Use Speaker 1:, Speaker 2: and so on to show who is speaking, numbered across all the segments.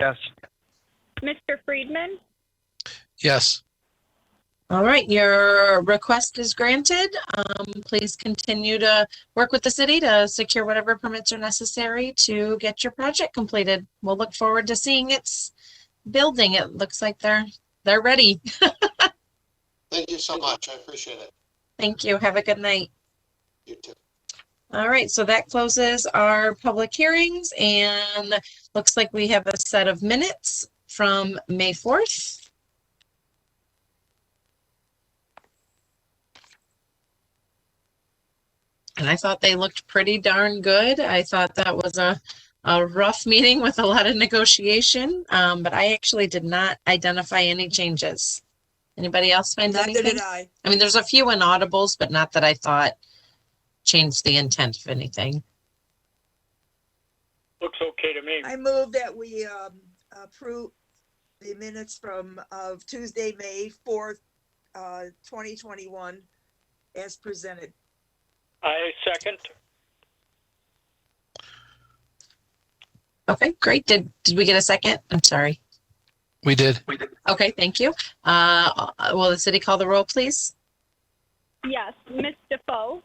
Speaker 1: Yes.
Speaker 2: Mr. Friedman?
Speaker 3: Yes.
Speaker 4: All right, your request is granted. Um, please continue to work with the city to secure whatever permits are necessary to get your project completed. We'll look forward to seeing its building. It looks like they're, they're ready.
Speaker 5: Thank you so much. I appreciate it.
Speaker 4: Thank you. Have a good night.
Speaker 5: You too.
Speaker 4: All right, so that closes our public hearings and looks like we have a set of minutes from May 4th. And I thought they looked pretty darn good. I thought that was a, a rough meeting with a lot of negotiation, um, but I actually did not identify any changes. Anybody else find
Speaker 6: Neither
Speaker 4: anything?
Speaker 6: did I.
Speaker 4: I mean, there's a few inaudibles, but not that I thought changed the intent of anything.
Speaker 1: Looks okay to me.
Speaker 6: I move that we um, approve the minutes from, of Tuesday, May 4th, uh, 2021, as presented.
Speaker 1: I second.
Speaker 4: Okay, great. Did, did we get a second? I'm sorry.
Speaker 3: We did.
Speaker 4: Okay, thank you. Uh, will the city call the roll, please?
Speaker 2: Yes. Ms. Defoe?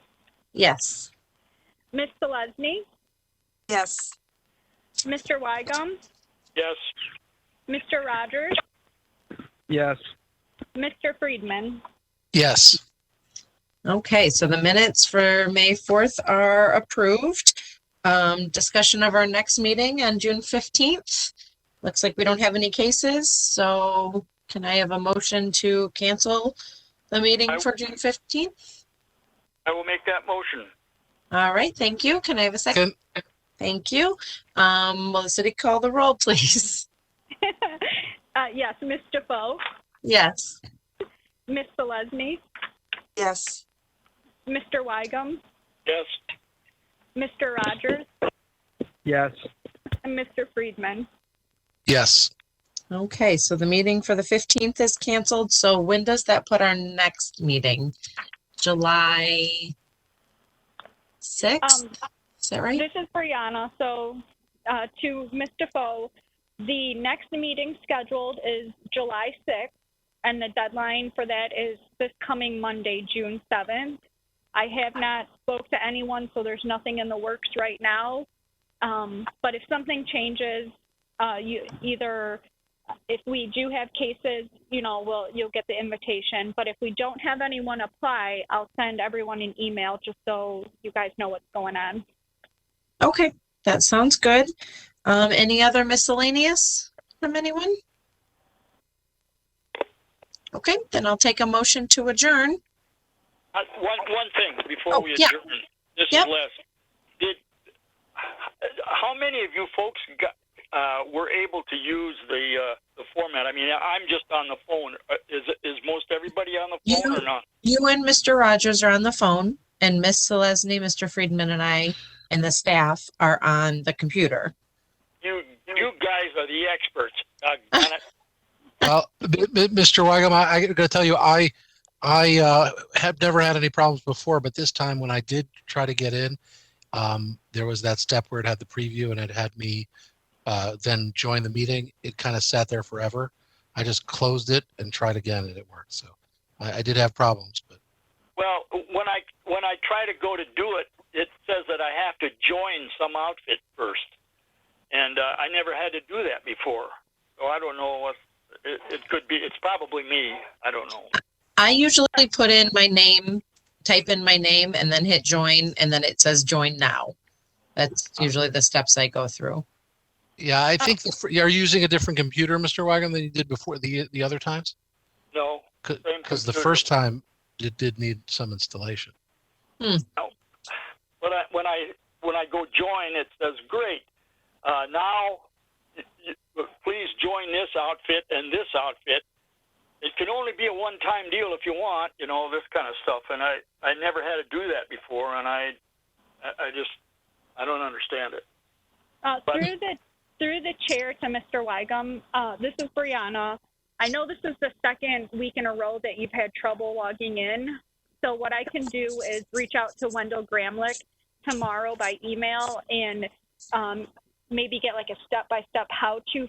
Speaker 4: Yes.
Speaker 2: Ms. Selesny?
Speaker 6: Yes.
Speaker 2: Mr. Wygum?
Speaker 1: Yes.
Speaker 2: Mr. Rogers?
Speaker 1: Yes.
Speaker 2: Mr. Friedman?
Speaker 3: Yes.
Speaker 4: Okay, so the minutes for May 4th are approved. Um, discussion of our next meeting on June 15th. Looks like we don't have any cases, so can I have a motion to cancel the meeting
Speaker 1: I-
Speaker 4: for June 15th?
Speaker 1: I will make that motion.
Speaker 4: All right, thank you. Can I have a second? Thank you. Um, will the city call the roll, please?
Speaker 2: Uh, yes. Ms. Defoe?
Speaker 4: Yes.
Speaker 2: Ms. Selesny?
Speaker 6: Yes.
Speaker 2: Mr. Wygum?
Speaker 1: Yes.
Speaker 2: Mr. Rogers?
Speaker 1: Yes.
Speaker 2: And Mr. Friedman?
Speaker 3: Yes.
Speaker 4: Okay, so the meeting for the fifteenth is canceled. So when does that put our next meeting? July sixth,
Speaker 2: Um,
Speaker 4: is that right?
Speaker 2: This is Brianna. So, uh, to Ms. Defoe, the next meeting scheduled is July 6th, and the deadline for that is this coming Monday, June 7th. I have not spoke to anyone, so there's nothing in the works right now. Um, but if something changes, uh, you either if we do have cases, you know, we'll you'll get the invitation. But if we don't have anyone apply, I'll send everyone an email just so you guys know what's going on.
Speaker 4: Okay, that sounds good. Um, any other miscellaneous from anyone? Okay, then I'll take a motion to adjourn.
Speaker 1: Uh, One, one thing
Speaker 4: Oh,
Speaker 1: before we
Speaker 4: yeah.
Speaker 1: adjourn. This is
Speaker 4: Yep.
Speaker 1: Les. Did, how many of you folks got, uh, were able to use the, uh, the format? I mean, I'm just on the phone. Uh, Is, is most everybody on the
Speaker 4: You
Speaker 1: phone or not?
Speaker 4: You and Mr. Rogers are on the phone and Miss Selesny, Mr. Friedman and I and the staff are on the computer.
Speaker 1: You, you guys are the experts. Uh, on it.
Speaker 3: Well, m- m- Mr. Wygum, I, I gotta tell you, I, I, uh, have never had any problems before, but this time when I did try to get in, um, there was that step where it had the preview and it had me, uh, then join the meeting. It kind of sat there forever. I just closed it and tried again and it worked. So I, I did have problems, but
Speaker 1: Well, when I when I try to go to do it, it says that I have to join some outfit first, and uh, I never had to do that before. So I don't know what it, it could be. It's probably me. I don't know.
Speaker 4: I usually put in my name, type in my name and then hit join and then it says join now. That's usually the steps I go through.
Speaker 3: yeah, I think
Speaker 1: Oh.
Speaker 3: the fr- you're using a different computer, Mr. Wygum, than you did before the, the other times?
Speaker 1: No,
Speaker 3: Cause,
Speaker 1: Same
Speaker 3: 'cause the
Speaker 1: computer.
Speaker 3: first time it did need some installation.
Speaker 1: when I when I when I go join, it says great. Uh, now, y- y- please join this outfit and this outfit. It can only be a one-time deal if you want, you know, this kind of stuff. And I I never had to do that before, and I I I just I don't understand it.
Speaker 2: Uh,
Speaker 1: But-
Speaker 2: through the through the chair to Mr. Wygum, uh, this is Brianna. I know this is the second week in a row that you've had trouble logging in. So what I can do is reach out to Wendell Gramlich tomorrow by email and um, maybe get like a step by step how to